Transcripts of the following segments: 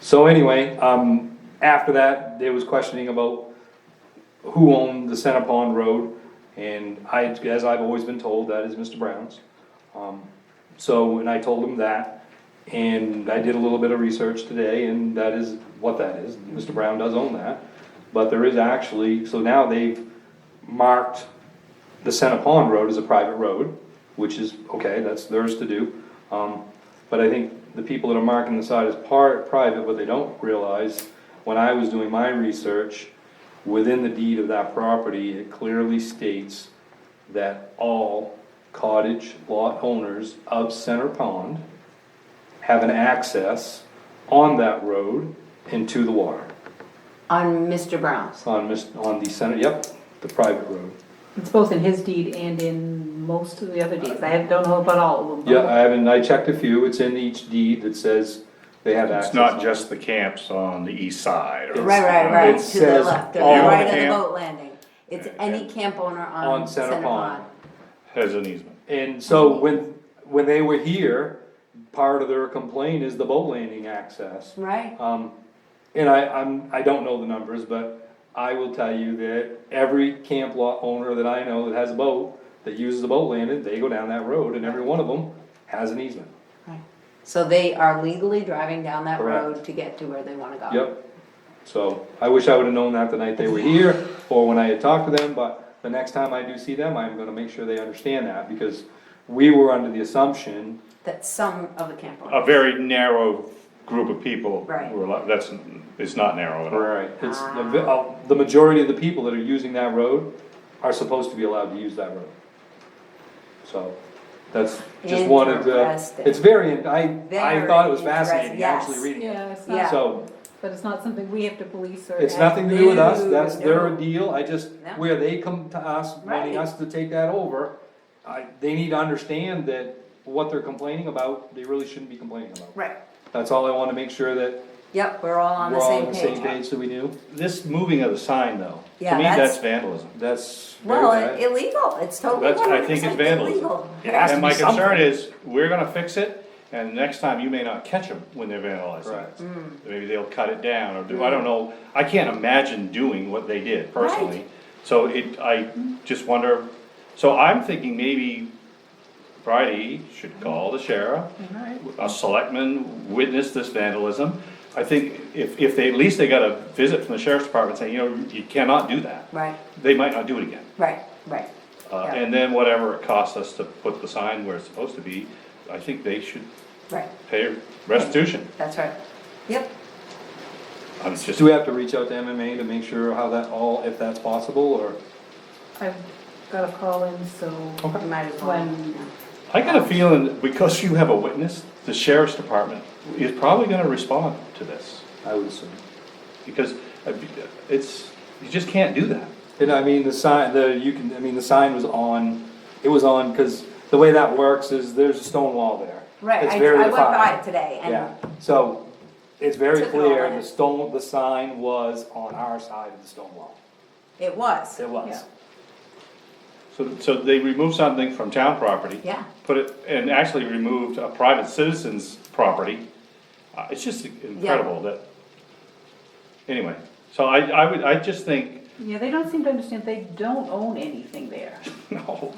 So anyway, um, after that, there was questioning about who owned the Center Pond Road, and I, as I've always been told, that is Mr. Brown's. Um, So, and I told him that, and I did a little bit of research today, and that is what that is, Mr. Brown does own that. But there is actually, so now they've marked the Center Pond Road as a private road, which is, okay, that's theirs to do. Um, but I think the people that are marking the side as part, private, what they don't realize, when I was doing my research, within the deed of that property, it clearly states that all cottage lot owners of Center Pond have an access on that road into the water, on Mr. Brown's. on Mis- on the center, yep, the private road. It's both in his deed and in most of the other deeds. I don't know about all of them. Yeah, I haven't, I checked a few, it's in each deed that says they have access. It's not just the camps on the east side. or- Right, right, right, It to the says left, they're all right on the camp- boat landing. It's any camp owner On on Center Center Pond. Pond. Has an easement. And so when, when they were here, part of their complaint is the boat landing access. Right, Um, and I, I'm, I don't know the numbers, but I will tell you that every camp lot owner that I know that has a boat, that uses a boat landing, they go down that road and every one of them has an easement. right. So they are legally driving down that Correct. road to get to where they wanna go. Yep. So I wish I would've known that the night they were here or when I had talked to them, but the next time I do see them, I'm gonna make sure they understand that because we were under the assumption That some of the camp A owners. very narrow group of people. Right. were li- That's, it's not narrow at all. Right, it's, the, vi- uh, the majority of the people that are using that road are supposed to be allowed to use that road. So, that's just one of the, Interesting. it's very, I, I Very thought it was interesting, fascinating, yes. actually reading Yeah, it. it's Yeah. not, So, but it's not something we have to police or. it's nothing to do with us, No, that's their no. deal, I just, No. where they come to us, wanting Right. us to take that over, I, they need to understand that what they're complaining about, they really shouldn't be complaining about. Right, That's all I wanna make sure that yep, we're all on we're the all on same the same page. page that we do, This moving of the sign though, Yeah, to me, that's- that's vandalism. that's very Well, bad. i- illegal, it's totally That's, one I hundred think it's percent vandalism. illegal. has to And be my concern something. is, we're gonna fix it, and next time you may not catch them when they're vandalizing. Correct. it. Mm. Maybe they'll cut it down or do, I don't know, I can't imagine doing what they did personally. So it, I just wonder, so I'm thinking maybe Friday should call the sheriff. A selectman witnessed this vandalism. I think if, if they, at least they got a visit from the sheriff's department saying, you know, you cannot do that. Right, They might not do it again. right, right. Uh, Yeah. and then whatever it costs us to put the sign where it's supposed to be, I think they should Right, pay restitution. that's right, yep. I'm just, Do we have to reach out to MMA to make sure how that all, if that's possible, or? I've got a call in, so You might as well. when, I got a feeling, that because you have a witness, the sheriff's department is probably gonna respond to this. I would assume. Because uh, it's, you just can't do that. And I mean, the sign, the, you can, I mean, the sign was on, it was on, cause the way that works is there's a stone wall there. Right, It's I, very I went by defined. it today Yeah, and, so it's very Took it all clear, in. the stone, the sign was on our side of the stone wall. it was, It was. Yeah. So, so they removed something from town property. Yeah. Put it, and actually removed a private citizen's property. Uh, it's just incredible that. Anyway, so I, I would, I just think, yeah, they don't seem to understand, they don't own anything there. No,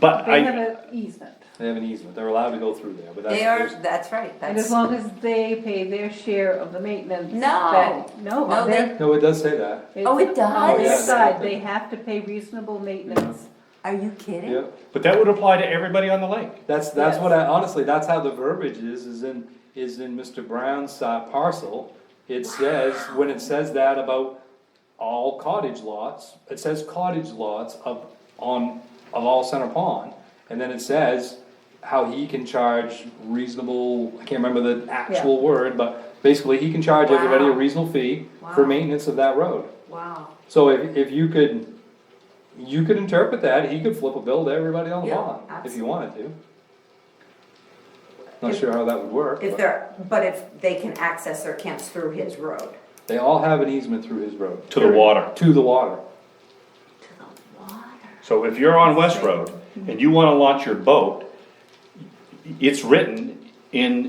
but They have I, an easement. They have an easement, they're allowed to go through there, but that's. they are, that's right, And as that's, long as they pay their share of the maintenance. No. that- No, No, they're. No, it does say that, it's Oh, it On their does? side, they have to pay reasonable maintenance. are you kidding? yeah. but that would apply to everybody on the lake. That's, that's what I, honestly, that's how the verbiage is, is in, is in Mr. Brown's uh, parcel. It says, when it says that about all cottage lots, it says cottage lots of, on, of all Center Pond. And then it says how he can charge reasonable, I can't remember the actual word, but basically he can charge everybody a Wow. reasonable fee for Wow. maintenance of that road. Wow, So if, if you could, you could interpret that, he could flip a bill to everybody on the Yeah, lawn, if you wanted to. Not sure how that would work, if but they're, but if they can access their camps through his road. they all have an easement through his road. To the water. To the water, To the water. So if you're on West Road and you wanna launch your boat, it's written in